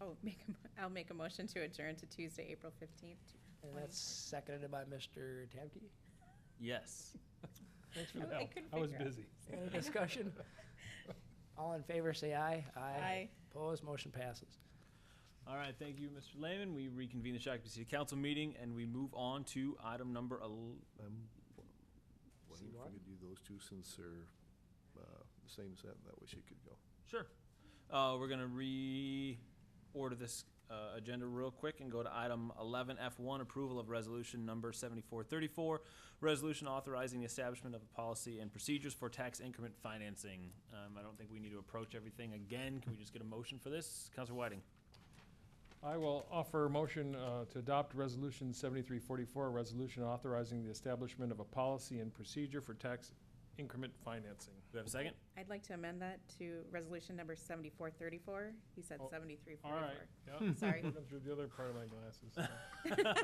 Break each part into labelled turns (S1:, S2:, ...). S1: Oh, make, a mo- I'll make a motion to adjourn to Tuesday, April 15th.
S2: And that's seconded by Mr. Tamke.
S3: Yes.
S2: Thanks for
S1: I
S2: the help.
S1: couldn't
S4: I was
S1: figure out.
S4: busy.
S2: Any discussion? All in favor, say aye.
S1: Aye.
S2: Opposed, motion passes.
S3: All right, thank you, Mr. Lehman. We reconvene the Shakopee City Council meeting, and we move on to item number el-
S5: I'm wondering if
S2: Seymour?
S5: we could do those two since they're uh, the same set, that way she could go.
S3: Sure. Uh, we're gonna reorder this, uh, agenda real quick and go to item eleven F one, approval of resolution number seventy-four thirty-four, resolution authorizing the establishment of a policy and procedures for tax increment financing. Um, I don't think we need to approach everything again. Can we just get a motion for this? Counselor Whiting?
S4: I will offer a motion uh, to adopt Resolution 7344, a resolution authorizing the establishment of a policy and procedure for tax increment financing.
S3: Do we have a second?
S1: I'd like to amend that to resolution number 7434. He said
S4: Oh,
S1: 7344.
S4: All right. yeah.
S1: Sorry.
S4: Looking Hmm. Through the other part of my glasses.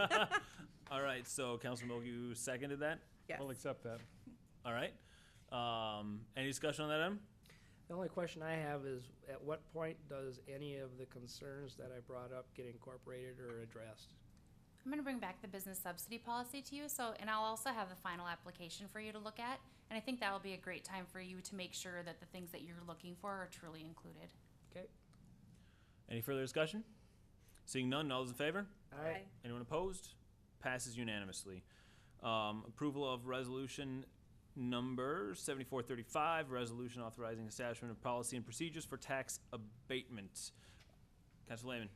S3: All right, so Councilor Mogu seconded that.
S4: I'll
S1: Yes.
S4: accept that.
S3: All right. Um, any discussion on that item?
S2: The only question I have is, at what point does any of the concerns that I brought up get incorporated or addressed?
S6: I'm going to bring back the business subsidy policy to you, so, and I'll also have the final application for you to look at. And I think that'll be a great time for you to make sure that the things that you're looking for are truly included.
S2: Okay?
S3: Any further discussion? Seeing none, all those in favor?
S1: Aye.
S3: Anyone opposed? Passes unanimously. Um, Approval of resolution number 7435, resolution authorizing establishment of policy and procedures for tax abatement. Councilor Lehman,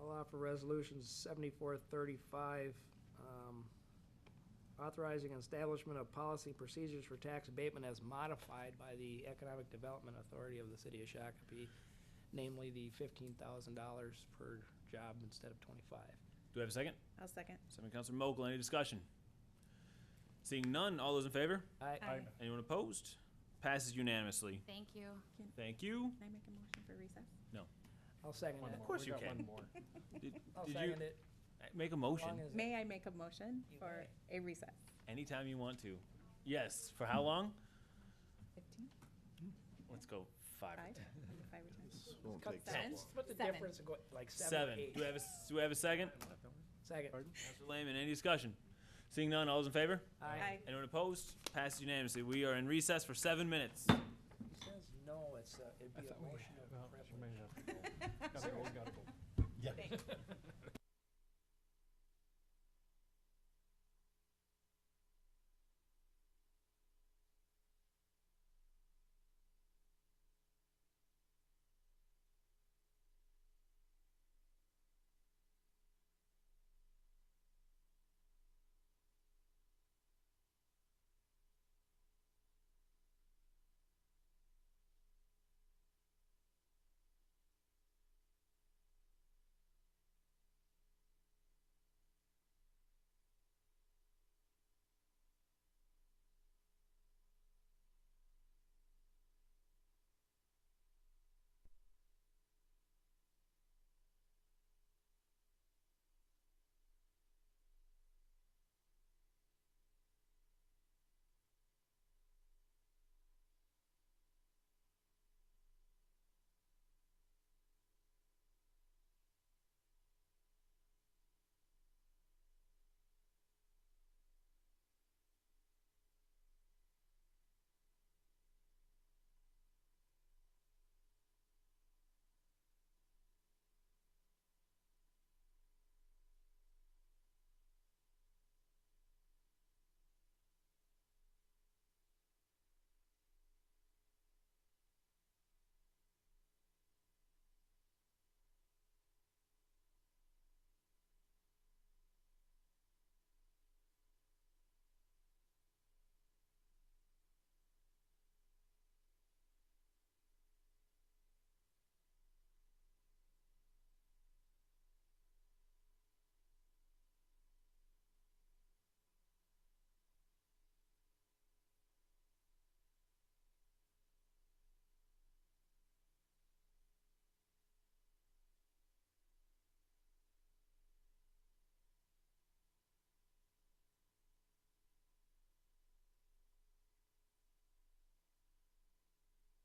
S2: I'll offer resolution seventy-four thirty-five, um, authorizing establishment of policy and procedures for tax abatement as modified by the Economic Development Authority of the City of Shakopee, namely the fifteen thousand dollars per job instead of twenty-five.
S3: do we have a second?
S1: I'll second.
S3: Second, Councilor Mogul, any discussion? Seeing none, all those in favor?
S2: I,
S1: Aye.
S3: Anyone opposed? Passes unanimously.
S6: Thank you.
S3: Thank you.
S1: Can I make a motion for recess?
S2: I'll second
S4: One
S2: that.
S4: more.
S3: course
S4: We
S3: you
S4: got
S3: can.
S4: One more.
S3: Did
S2: I'll
S3: did
S2: second
S3: you
S2: it.
S3: make a
S2: as long
S3: motion
S2: as it-
S1: May I make a motion
S2: You
S1: for a recess?
S3: anytime you want to? Yes, for how long?
S1: 15,
S3: Let's go five. or
S1: 5,
S3: ten.
S1: five or 10?
S5: This won't
S2: Cut
S5: take
S2: that.
S5: that
S1: seven.
S5: long.
S2: What's the
S1: Seven.
S2: difference in going, like seven,
S3: Seven.
S2: eight?
S3: Do we have a, s- do we have a second?
S2: Second.
S3: Counselor Lehman, any discussion? Seeing none, all those in favor?
S1: Aye.
S3: Anyone opposed? Passes unanimously. We are in recess for seven minutes.
S2: He says no, it's, uh, it'd be a motion of
S4: Well, she
S2: privilege.
S4: may have to go. Gotta go, gotta go.
S1: Thank you.